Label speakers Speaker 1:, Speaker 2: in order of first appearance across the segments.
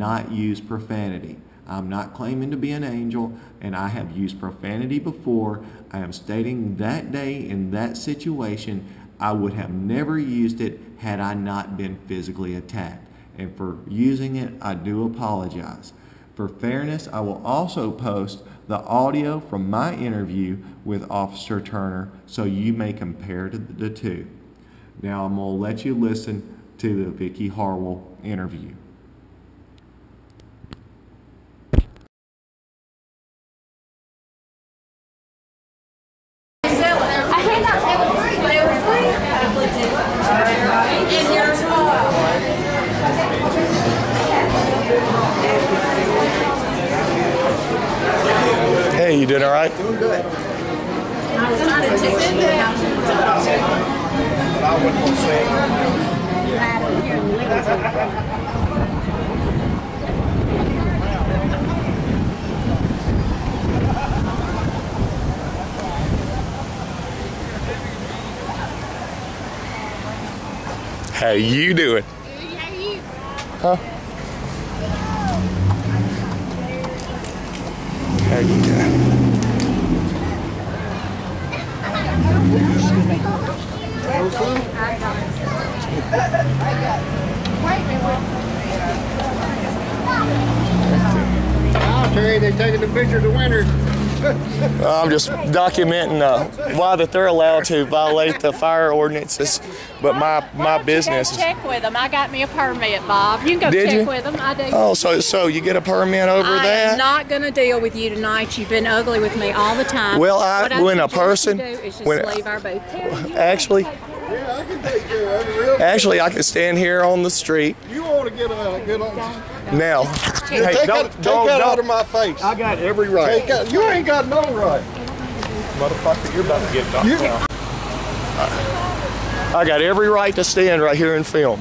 Speaker 1: not use profanity. I'm not claiming to be an angel, and I have used profanity before. I am stating that day in that situation, I would have never used it had I not been physically attacked. And for using it, I do apologize. For fairness, I will also post the audio from my interview with Officer Turner so you may compare to the two. Now I'm going to let you listen to the Vicki Harwell interview.
Speaker 2: I think that they were free. They were free. And yours was.
Speaker 3: Hey, you doing all right? How you doing? How you doing?
Speaker 4: Wow, Terry, they're taking the picture of the winners.
Speaker 3: Well, I'm just documenting uh, why that they're allowed to violate the fire ordinances, but
Speaker 2: Why
Speaker 3: my my
Speaker 2: don't you go
Speaker 3: business. Is,
Speaker 2: Check with them. I got me a permit, Bob. You can go
Speaker 3: Did
Speaker 2: check
Speaker 3: you?
Speaker 2: with them. I did.
Speaker 3: oh, so so you get a permit over
Speaker 2: I
Speaker 3: that?
Speaker 2: am not going to deal with you tonight. You've been ugly with me all the time.
Speaker 3: Well, I-
Speaker 2: What
Speaker 3: when a
Speaker 2: suggest you
Speaker 3: person-
Speaker 2: do is just
Speaker 3: when-
Speaker 2: leave our booth. Terry, you-
Speaker 3: actually,
Speaker 4: Yeah, I can take care of it real quick.
Speaker 3: actually, I can stand here on the street
Speaker 4: You want to get a good on.
Speaker 3: now. Hey, don't
Speaker 4: take that, take
Speaker 3: don't,
Speaker 4: that
Speaker 3: don't
Speaker 4: out of my face. I got every right. Take that, you ain't got no right.
Speaker 3: motherfucker! You're about to get knocked
Speaker 4: You-
Speaker 3: down. I got every right to stand right here and film.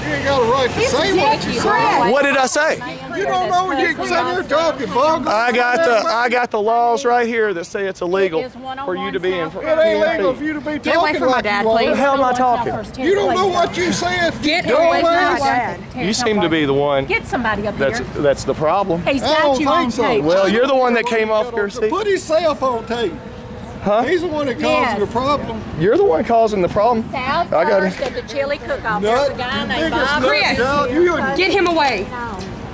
Speaker 4: You ain't got a right to say what you say.
Speaker 3: What did I say?
Speaker 4: You don't know what you're sitting here talking, Vogel.
Speaker 3: I got the I got the laws right here that say it's illegal
Speaker 2: is one on
Speaker 3: for you
Speaker 2: one
Speaker 3: to be in.
Speaker 2: South
Speaker 3: front-
Speaker 4: It ain't legal for you to be
Speaker 2: Get away
Speaker 4: talking
Speaker 2: from my
Speaker 4: like you
Speaker 2: dad,
Speaker 4: want.
Speaker 2: please.
Speaker 3: The hell am I talking?
Speaker 4: You don't know what you said.
Speaker 2: Get
Speaker 4: dumbass.
Speaker 2: away from my dad.
Speaker 3: You seem to be the one
Speaker 2: Get somebody up
Speaker 3: that's
Speaker 2: here.
Speaker 3: that's the problem.
Speaker 2: He's
Speaker 4: I
Speaker 2: got
Speaker 4: don't
Speaker 2: you on
Speaker 4: think so.
Speaker 2: tape.
Speaker 3: Well, you're the one that came off your seat.
Speaker 4: Put his cell phone tape.
Speaker 3: Huh?
Speaker 4: He's the one that
Speaker 2: Yes.
Speaker 4: caused your problem.
Speaker 3: You're the one causing the problem.
Speaker 2: South
Speaker 3: I got it.
Speaker 2: First of the chili cook-off. There's
Speaker 4: Nut,
Speaker 2: a
Speaker 4: you
Speaker 2: guy named
Speaker 4: biggest
Speaker 2: Bob.
Speaker 4: nut job. You, a-
Speaker 5: Get him away.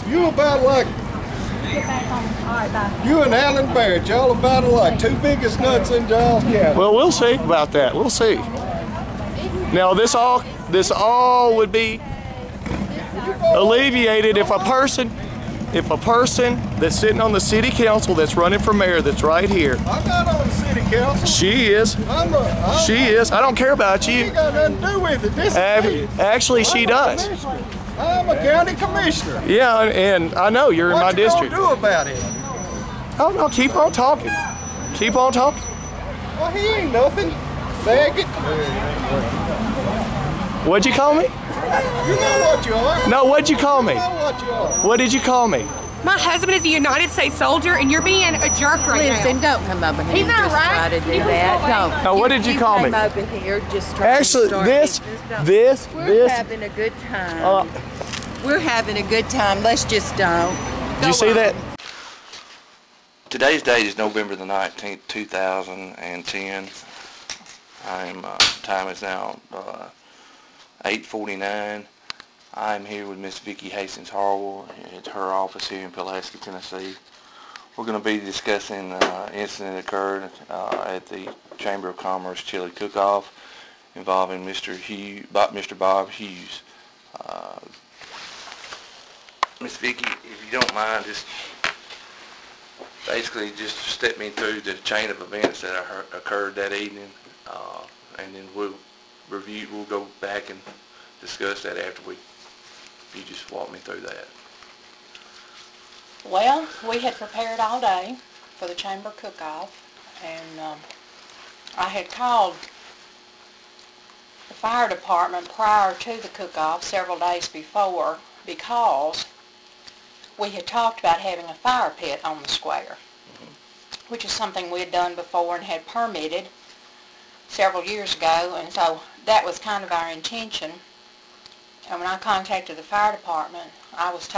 Speaker 4: you about like
Speaker 2: Get back on. All right, bye.
Speaker 4: You and Alan Barrett, y'all about alike. Two biggest nuts in Giles County.
Speaker 3: Well, we'll see about that. We'll see. Now this all this all would be alleviated if a person if a person that's sitting on the city council that's running for mayor that's right here.
Speaker 4: I'm not on the city council.
Speaker 3: She is.
Speaker 4: I'm a. I'm,
Speaker 3: She is. I don't care about
Speaker 4: She
Speaker 3: you.
Speaker 4: ain't got nothing to do with it. This
Speaker 3: Ac-
Speaker 4: is me.
Speaker 3: Actually, she
Speaker 4: I'm a
Speaker 3: does.
Speaker 4: commissioner. I'm a county commissioner.
Speaker 3: Yeah, and and I know you're in
Speaker 4: what
Speaker 3: my
Speaker 4: you
Speaker 3: district.
Speaker 4: gonna do about it?
Speaker 3: Oh no, keep on talking. Keep on talking.
Speaker 4: Well, he ain't nothing. Faggot.
Speaker 3: What'd you call me?
Speaker 4: You know what you are.
Speaker 3: No, what'd you call me?
Speaker 4: You know what you are.
Speaker 3: What did you call me?
Speaker 5: My husband is a United States soldier, and you're being a jerk right
Speaker 6: Lives
Speaker 5: now.
Speaker 6: and don't come over here.
Speaker 2: He's not
Speaker 6: just
Speaker 2: right.
Speaker 6: try to do
Speaker 2: He was
Speaker 6: that.
Speaker 2: not
Speaker 6: Don't.
Speaker 3: Now, what did you call
Speaker 6: came
Speaker 3: me?
Speaker 6: over here just trying
Speaker 3: Actually,
Speaker 6: to start
Speaker 3: this,
Speaker 6: it. Just don't.
Speaker 3: this,
Speaker 6: We're
Speaker 3: this.
Speaker 6: having a good time.
Speaker 3: Uh,
Speaker 6: We're having a good time. Let's just don't.
Speaker 3: do you see that?
Speaker 7: Today's date is November the 19th, 2010. I'm, uh, time is now uh, 8.49. I'm here with Miss Vicki Hastings Harwell at her office here in Pulaski, Tennessee. We're going to be discussing uh, an incident that occurred uh, at the Chamber of Commerce Chili Cook-Off involving Mr. Hugh, Bob, Mr. Bob Hughes. Uh, Miss Vicki, if you don't mind, just basically just step me through the chain of events that occur- occurred that evening, uh, and then we'll review, we'll go back and discuss that after we, you just walk me through that.
Speaker 8: Well, we had prepared all day for the chamber cook-off, and um, I had called the fire department prior to the cook-off several days before because we had talked about having a fire pit on the square, which is something we had done before and had permitted several years ago, and so that was kind of our intention. And when I contacted the fire department, I was told